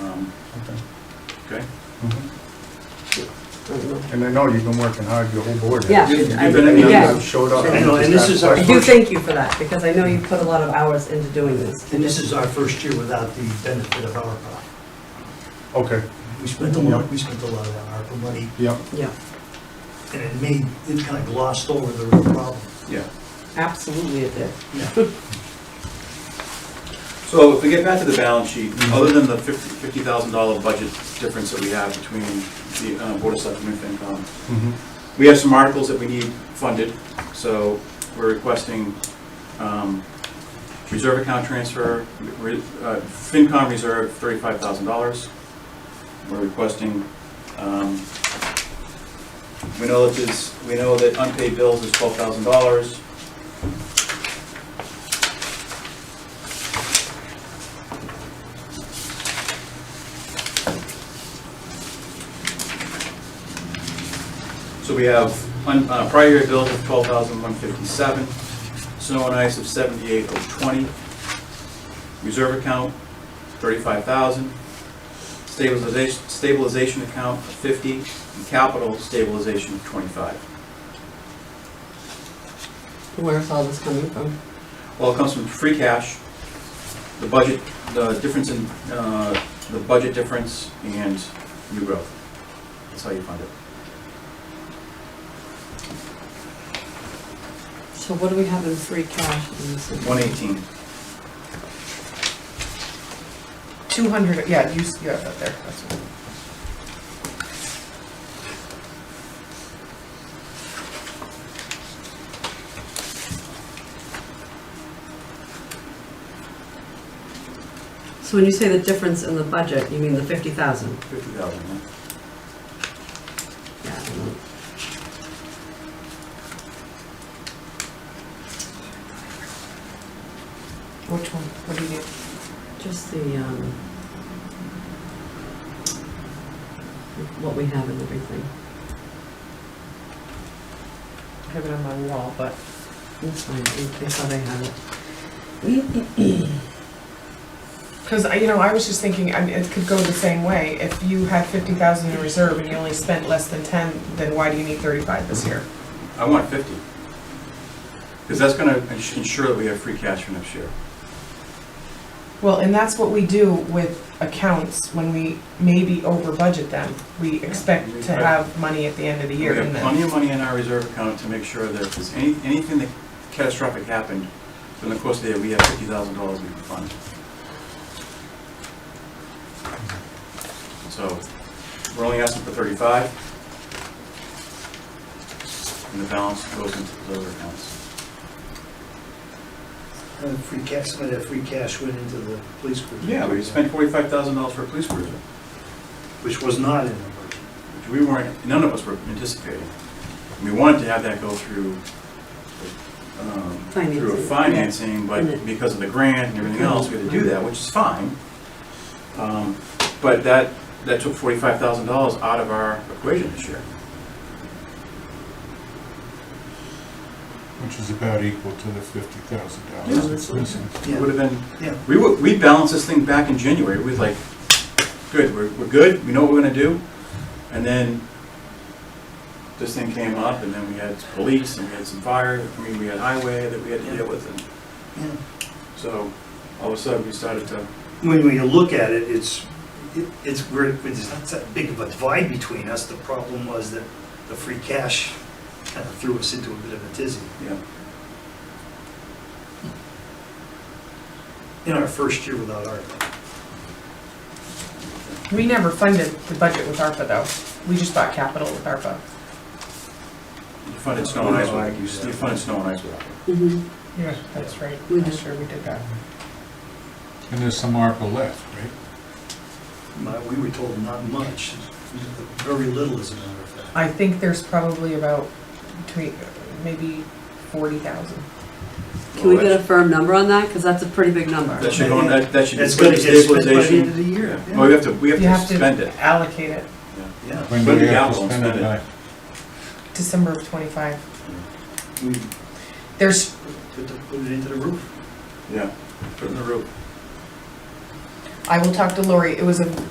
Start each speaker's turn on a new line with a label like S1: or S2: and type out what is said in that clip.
S1: Um, Okay.
S2: Mm-hmm. And I know you've been working hard, your whole board. has.
S3: Yeah.
S1: You-
S3: I-
S1: You've been in the
S3: yeah.
S2: You Showed up.
S1: I know, and this is our-
S3: I do thank you for that, because I know you put a lot of hours into doing this.
S4: And this is our first year without the benefit of ARPA.
S2: Okay,
S4: We spent a lot, we spent a lot of that ARPA money,
S2: yeah,
S3: Yeah,
S4: and it made, it kind of glossed over the real problem.
S1: Yeah.
S3: absolutely it did.
S4: Yeah.
S1: So if we get back to the balance sheet, other than the fifty, fifty thousand dollar budget difference that we have between the uh, Board of Selectmen and FinCom,
S2: mhm,
S1: we have some articles that we need funded, so we're requesting, um, reserve account transfer, re- uh, FinCom reserve thirty-five thousand dollars. We're requesting, um, we know that this, we know that unpaid bills is twelve thousand dollars. So we have un- uh, prior year bills of twelve thousand one fifty-seven, snow and ice of seventy-eight oh twenty, reserve account thirty-five thousand, stabilization, stabilization account of fifty, and capital stabilization of twenty-five.
S3: Where's all this coming from?
S1: Well, it comes from free cash, the budget, the difference in, uh, the budget difference and new growth. That's how you fund it.
S3: So what do we have in free cash in this?
S1: One eighteen.
S5: Two hundred, yeah, you, s- you have that there, that's what.
S3: So when you say the difference in the budget, you mean the fifty thousand?
S1: Fifty thousand. yeah.
S3: Yeah. I don't know.
S5: Which one, what do you need?
S3: Just the, um, what we have and everything.
S5: I have it on my wall, but.
S3: That's fine, I I thought I had it.
S5: Because, you know, I was just thinking, I mean, it could go the same way. If you had fifty thousand in reserve and you only spent less than ten, then why do you need thirty-five this year?
S1: I want fifty. Because that's gonna ens- ensure that we have free cash for next year.
S5: Well, and that's what we do with accounts when we maybe over budget them. We expect to have money at the end of the
S1: We
S5: year
S1: have
S5: and
S1: plenty
S5: then.
S1: of money in our reserve account to make sure that if there's any, anything that catastrophic happened during the course of the year, we have fifty thousand dollars we can fund. So, we're only asking for thirty-five. And the balance goes into the other accounts.
S4: And the Uh, free cash, some of that free cash went into the police cruiser.
S1: Yeah, we spent forty-five thousand dollars for a police cruiser,
S4: Which was not in the budget.
S1: which we weren't, none of us were anticipating. And We wanted to have that go through, um, through a financing,
S3: Financing. Yeah.
S1: but because of the grant and everything else, we had to do that, which is fine. Um, But that, that took forty-five thousand dollars out of our equation this year.
S6: which is about equal to the fifty thousand
S1: Yeah,
S6: dollars.
S1: that's It
S4: Yeah,
S1: would have been,
S4: yeah.
S1: we would, we balanced this thing back in January, we was like, good, we're, we're good, we know what we're gonna do. And then this thing came up, and then we had police, and we had some fire, I mean, we had highway that we had to deal with, and
S4: yeah.
S1: so all of a sudden, we started to
S4: When, when you look at it, it's, it- it's, we're, it's not that big of a divide between us. The problem was that the free cash kind of threw us into a bit of a tizzy.
S1: Yeah,
S4: in our first year without ARPA.
S5: We never funded the budget with ARPA though. We just bought capital with ARPA.
S1: you funded snow and ice, with- you funded snow and ice without it.
S3: Mhm.
S5: Yeah, that's right.
S3: We
S5: I'm
S3: did.
S5: sure we did that.
S6: And there's some ARPA left, right?
S4: My- We were told not much, very little as a matter of fact.
S5: I think there's probably about between, maybe forty thousand.
S3: Can we get a firm number on that? Because that's a pretty big number.
S1: That should go, on- that, that should. be
S4: It's gonna get Oh, spent by the end of
S1: stabilization.
S4: the year.
S1: Yeah. Well, we have to, we have
S5: You have
S1: to spend
S5: to
S1: it.
S5: allocate it
S4: Yeah,
S6: When
S1: But
S6: do we
S1: the
S6: have
S1: capital
S6: to spend
S1: spend it.
S6: it by?
S5: December of twenty-five.
S4: we
S5: There's,
S4: put the- put it into the roof.
S1: Yeah, put it in the roof.
S5: I will talk to Lori, it was a